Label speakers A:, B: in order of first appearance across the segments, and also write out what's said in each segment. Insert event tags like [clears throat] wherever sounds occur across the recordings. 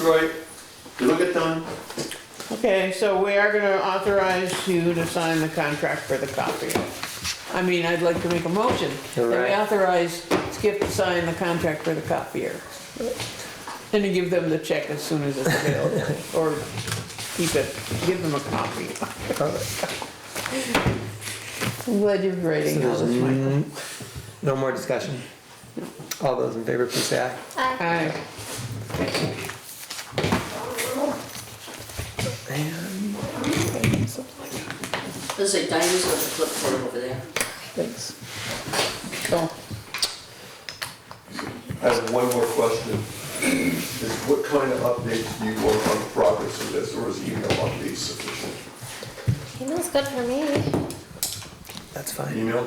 A: Right. You look at them,
B: Okay, so we are gonna authorize you to sign the contract for the copier. I mean, I'd like to make a motion that we
C: Alright.
B: authorize Skip to sign the contract for the copier. And to give them the check as soon as it's available, or keep it, give them a copy. I'm glad you're writing all this, Michael.
C: No more discussion. All those in favor, please say aye.
B: Aye.
D: Let's say Diane's got the clipboard over there.
C: Thanks.
B: So,
A: I have one more question. Is what kind of updates do you want on the progress of this, or is email updates sufficient?
E: Email's good for me.
C: That's fine.
A: Email?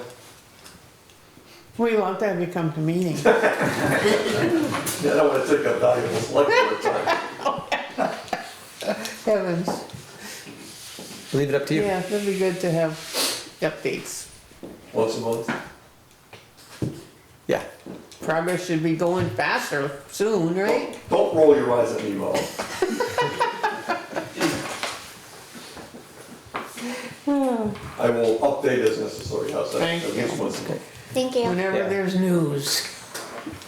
B: we want that to come to meeting.
A: Yeah, I don't wanna take up valuable select board time.
B: Heavens,
C: Leave it up to you.
B: yeah, that'd be good to have updates.
A: [laughs] Once a month?
C: Yeah.
B: Progress should be going faster soon, right?
A: Don't roll your eyes at me,
B: [laughs]
A: Mom. I will update as necessary, how's that?
B: Thank
A: At
B: you.
A: least once a month.
E: Thank you.
B: Whenever
C: Yeah.
B: there's news,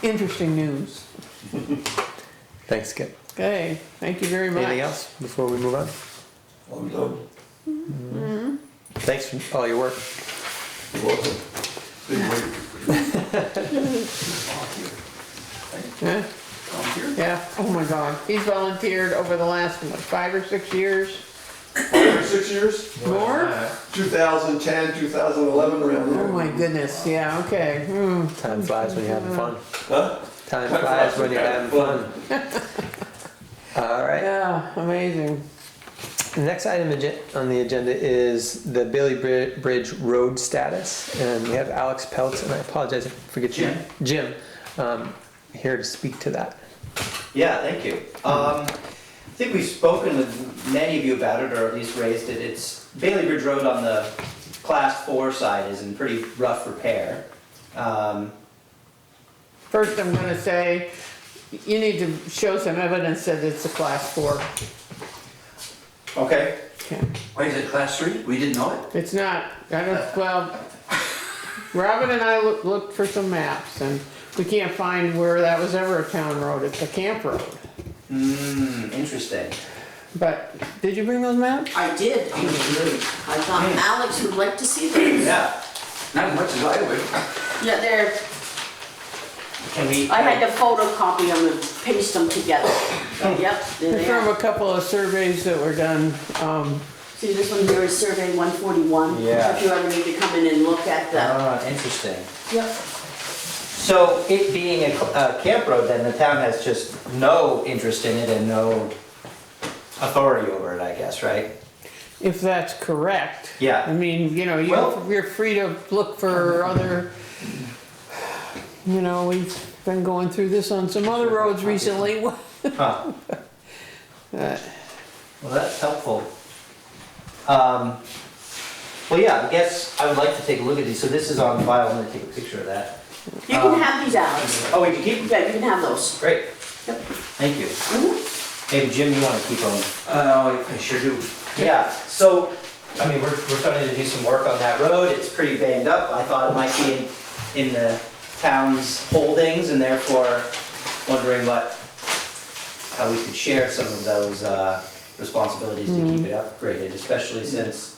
B: interesting news.
C: Thanks, Skip.
B: Okay, thank you very much.
C: Anything else before we move on?
A: I'm done.
C: Thanks for all your work.
A: You're welcome. Big wait.
B: Huh? Yeah, oh my God, he's volunteered over the last, what, five or six years?
A: Five or six years?
B: More?
A: 2010, 2011, around there.
B: Oh my goodness, yeah, okay, hmm,
C: Time flies when you're having fun.
A: Huh?
C: Time flies when you're having fun. [laughs] All right.
B: yeah, amazing.
C: The next item agen- on the agenda is the Bailey Bri- Bridge road status, and we have Alex Peltz, and I apologize if I forget you. Jim, um, here to speak to that.
F: Yeah, thank you. Um, I think we've spoken with many of you about it, or at least raised it. It's Bailey Bridge Road on the class four side is in pretty rough repair. Um,
B: First, I'm gonna say, you need to show some evidence that it's a class four.
F: okay,
B: Okay.
G: Why is it class three? We didn't know it.
B: It's not, I don't, well, Robin and I loo- looked for some maps and we can't find where that was ever a town road, it's a camp road.
F: Hmm, interesting.
B: But, did you bring those maps?
D: I did. I thought Alex would like to see them.
F: Yeah,
G: Not as much as I would.
D: Yeah, they're,
F: can we?
D: I had to photocopy them and paste them together. Yep, there
B: They're
D: they
B: From
D: are.
B: a couple of surveys that were done, um,
D: See, this one here is survey one forty-one.
F: Yeah.
D: If you ever need to come in and look at the.
F: Ah, interesting.
D: Yep.
F: So it being a, cl- a camp road, then the town has just no interest in it and no authority over it, I guess, right?
B: if that's correct.
F: Yeah.
B: I mean, you know, you,
F: Well-
B: you're free to look for other, you know, we've been going through this on some other roads recently.
F: Huh.
B: Uh,
F: Well, that's helpful. Um, Well, yeah, I guess I would like to take a look at these. So this is on file, I'm gonna take a picture of that.
D: You can
F: Uh-huh.
D: have these, Alex.
F: Oh, we can keep them?
D: Yeah, you can have those.
F: Great.
D: Yep.
F: Thank you. Maybe Jim, you wanna keep them?
G: Uh, I sure do.
F: Yeah, so, I mean, we're, we're starting to do some work on that road, it's pretty banged up, I thought it might be in, in the town's holdings, and therefore wondering what, how we could share some of those, uh, responsibilities to keep it upgraded, especially since,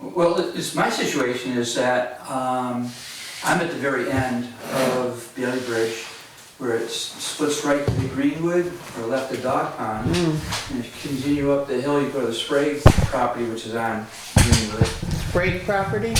G: Well, it- it's, my situation is that, um, I'm at the very end of Bailey Bridge, where it s- splits right to the Greenwood, or left the dog pond.
B: Hmm,
G: And if you continue up the hill, you go to the Sprague property, which is on Greenwood.
B: Sprague property,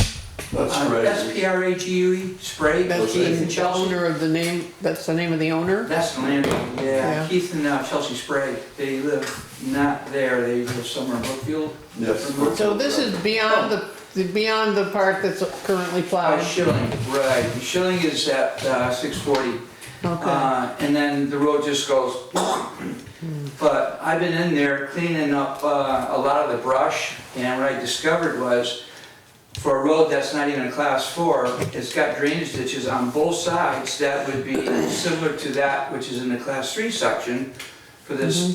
G: Uh,
A: That's great.
G: S P R A G U E, Sprague,
B: that's
G: Keith and
B: the
G: Chelsea.
B: owner of the name, that's the name of the owner?
G: That's the landlord,
B: Yeah.
G: yeah. Keith and uh, Chelsea Sprague, they live not there, they live somewhere in Brookfield.
A: Yes.
B: So this is beyond the, the- beyond the part that's currently
G: By
B: plowed?
G: Schilling, Uh, right, Schilling is at uh, 640.
F: um,
B: Okay,
G: Uh, And then the road just goes, [clears throat] but I've been in there cleaning up uh, a lot of the brush, and what I discovered was, for a road that's not even a class four, it's got drainage ditches on both sides that would be similar to that which is in the class three section for this